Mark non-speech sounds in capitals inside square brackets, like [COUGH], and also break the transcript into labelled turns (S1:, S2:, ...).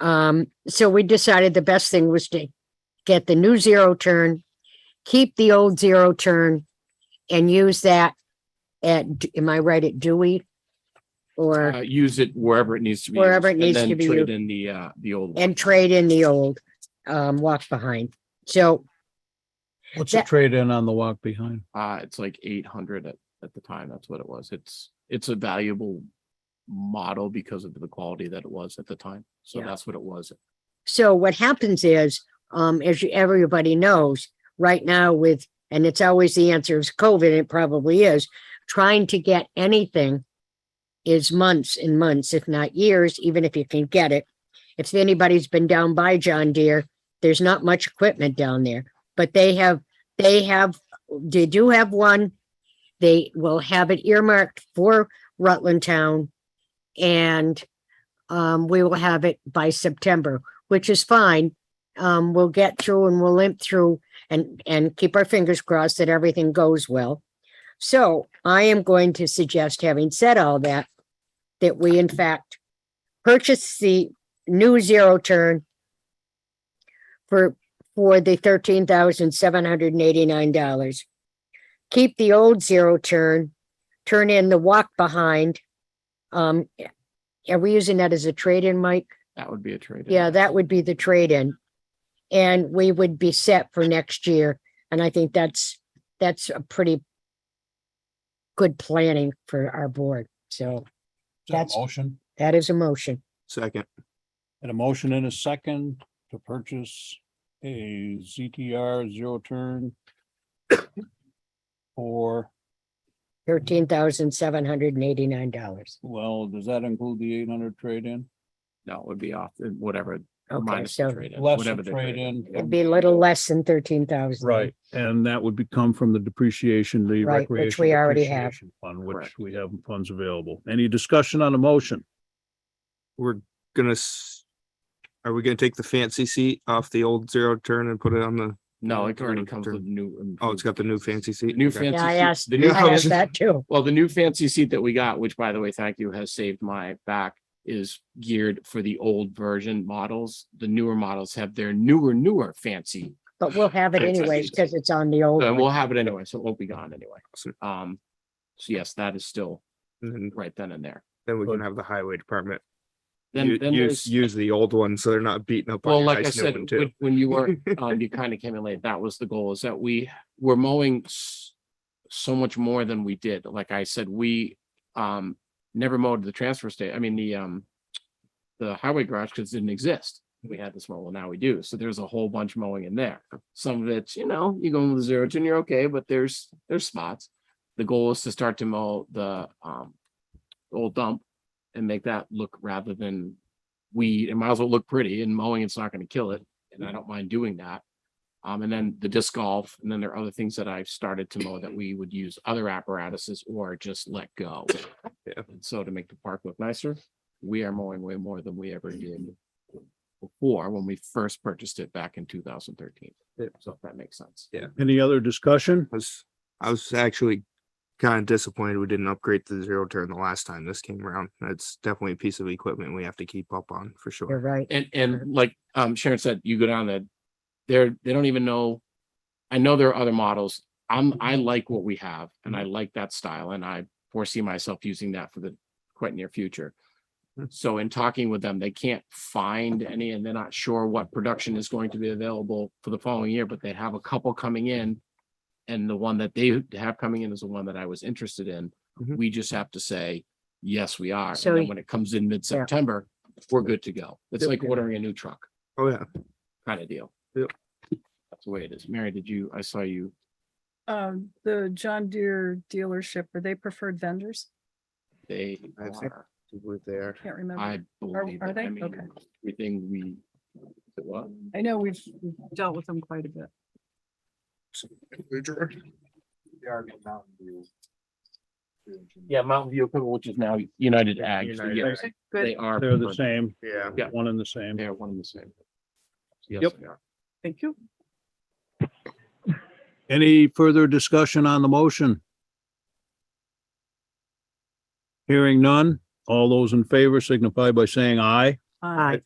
S1: Um, so we decided the best thing was to get the new zero turn, keep the old zero turn and use that at, am I right, at Dewey?
S2: Uh,
S1: Or,
S2: use it wherever it needs to be.
S1: Wherever
S2: used,
S1: it
S2: and
S1: needs to
S2: then
S1: be
S2: trade
S1: used.
S2: In the, uh, the old one.
S1: and trade in the old, um, walk behind. So
S3: What's the
S1: That-
S3: trade in on the walk behind?
S2: Uh, it's like eight hundred at, at the time. That's what it was. It's, it's a valuable model because of the quality that it was at the time. So
S1: Yeah.
S2: that's what it was.
S1: So what happens is, um, as you- everybody knows, right now with, and it's always the answer is COVID, it probably is, trying to get anything is months and months, if not years, even if you can get it. If anybody's been down by John Deere, there's not much equipment down there, but they have, they have, they do have one. They will have it earmarked for Rutland Town. And, um, we will have it by September which is fine. Um, we'll get through and we'll limp through and, and keep our fingers crossed that everything goes well. So I am going to suggest, having said all that, that we in fact purchase the new zero turn for, for the thirteen thousand seven hundred and eighty-nine dollars. Keep the old zero turn, turn in the walk behind. Um, are we using that as a trade-in, Mike?
S2: That would be a trade.
S1: Yeah, that would be the trade-in. And we would be set for next year. And I think that's, that's a pretty good planning for our board. So
S3: Is that a
S1: That's-
S3: Motion,
S1: that is a motion.
S2: Second.
S3: and a motion in a second to purchase a ZTR zero turn. [COUGHS] For,
S1: Thirteen thousand seven hundred and eighty-nine dollars.
S3: well, does that include the eight hundred trade in?
S2: No, it would be off, uh, whatever.
S1: Okay,
S2: minus the
S1: so
S2: trade-in,
S3: Less
S2: whatever
S3: the
S2: the
S3: trade
S2: trade-in.
S3: in.
S1: it'd be a little less than thirteen thousand.
S3: Right, and that would become from the depreciation, the
S1: Right, which
S3: recreation.
S1: we already have.
S3: depreciation Fund, which
S2: Correct.
S3: we have funds available. Any discussion on a motion?
S4: we're gonna s- are we gonna take the fancy seat off the old zero turn and put it on the,
S2: No, it already comes
S4: Turn.
S2: with new.
S4: oh, it's got the new fancy
S2: The
S4: seat?
S2: New
S4: Okay.
S2: fancy.
S1: Yeah, I
S2: seat-
S1: asked,
S2: the
S1: I
S2: new
S1: asked
S2: fancy-
S1: that too.
S2: Well, the new fancy seat that we got, which by the way, thank you, has saved my back, is geared for the old version models. The newer models have their newer, newer fancy.
S1: But we'll have it
S2: Fantastic.
S1: anyways because it's on the old
S2: Uh,
S1: one.
S2: We'll have it anyway, so it won't be gone anyway.
S4: So-
S2: Um, so yes, that is still
S4: And then,
S2: right then and there.
S4: then we can have the highway department
S2: Then,
S4: u-
S2: then
S4: use,
S2: there's,
S4: use the old one, so they're not beating up
S2: well,
S4: on your
S2: like I
S4: nice new
S2: said,
S4: one too.
S2: when, when you were, um, you kind of came in late, that was the goal, is that we were mowing s- so much more than we did. Like I said, we, um, never mowed the transfer state, I mean, the, um, the highway garage, because it didn't exist. We had this mow, well, now we do. So there's a whole bunch mowing in there. Some of it's, you know, you go with zero turn, you're okay, but there's, there's spots. The goal is to start to mow the, um, old dump and make that look rather than weed, it might as well look pretty and mowing, it's not gonna kill it, and I don't mind doing that. Um, and then the disc golf, and then there are other things that I've started to mow that we would use other apparatuses or just let go.
S4: Yeah.
S2: And so to make the park look nicer, we are mowing way more than we ever did before when we first purchased it back in two thousand thirteen.
S4: Yeah.
S2: So if that makes sense.
S3: Any other discussion?
S4: I was, I was actually kind of disappointed we didn't upgrade the zero turn the last time this came around. That's definitely a piece of equipment we have to keep up on for
S1: You're
S4: sure.
S1: right.
S2: And, and like, um, Sharon said, you go down that, they're, they don't even know. I know there are other models. I'm, I like what we have and I like that style and I foresee myself using that for the quite near future.
S4: Mm.
S2: So in talking with them, they can't find any and they're not sure what production is going to be available for the following year, but they have a couple coming in. And the one that they have coming in is the one that I was interested in.
S4: Mhm.
S2: We just have to say, yes, we are. And
S1: So
S2: then
S1: y-
S2: when it comes in mid-September, we're good to go. It's
S4: Yep.
S2: like ordering a new truck
S4: Oh, yeah.
S2: kind of deal.
S4: Yep.
S2: That's the way it is. Mary, did you, I saw you,
S5: Um, the John Deere dealership, are they preferred vendors?
S2: they
S4: I think-
S2: are,
S4: There.
S5: Can't remember.
S2: I believe.
S5: are
S2: it. I
S5: they?
S2: mean,
S5: Okay.
S2: Everything we, what?
S5: I know we've we've dealt with them quite a bit.
S2: Yeah, Mountain View equipment, which is now United Ag. so
S4: United
S2: yeah,
S4: Ag.
S2: They
S5: Good,
S2: are.
S3: They're the
S2: preferred.
S3: same,
S4: Yeah.
S2: Yeah.
S3: one and the same.
S2: They are one and the same. Yes,
S3: Yep.
S2: they are.
S5: thank you.
S3: Any further discussion on the motion? Hearing none, all those in favor signify by saying aye.
S5: Uh,
S1: Aye.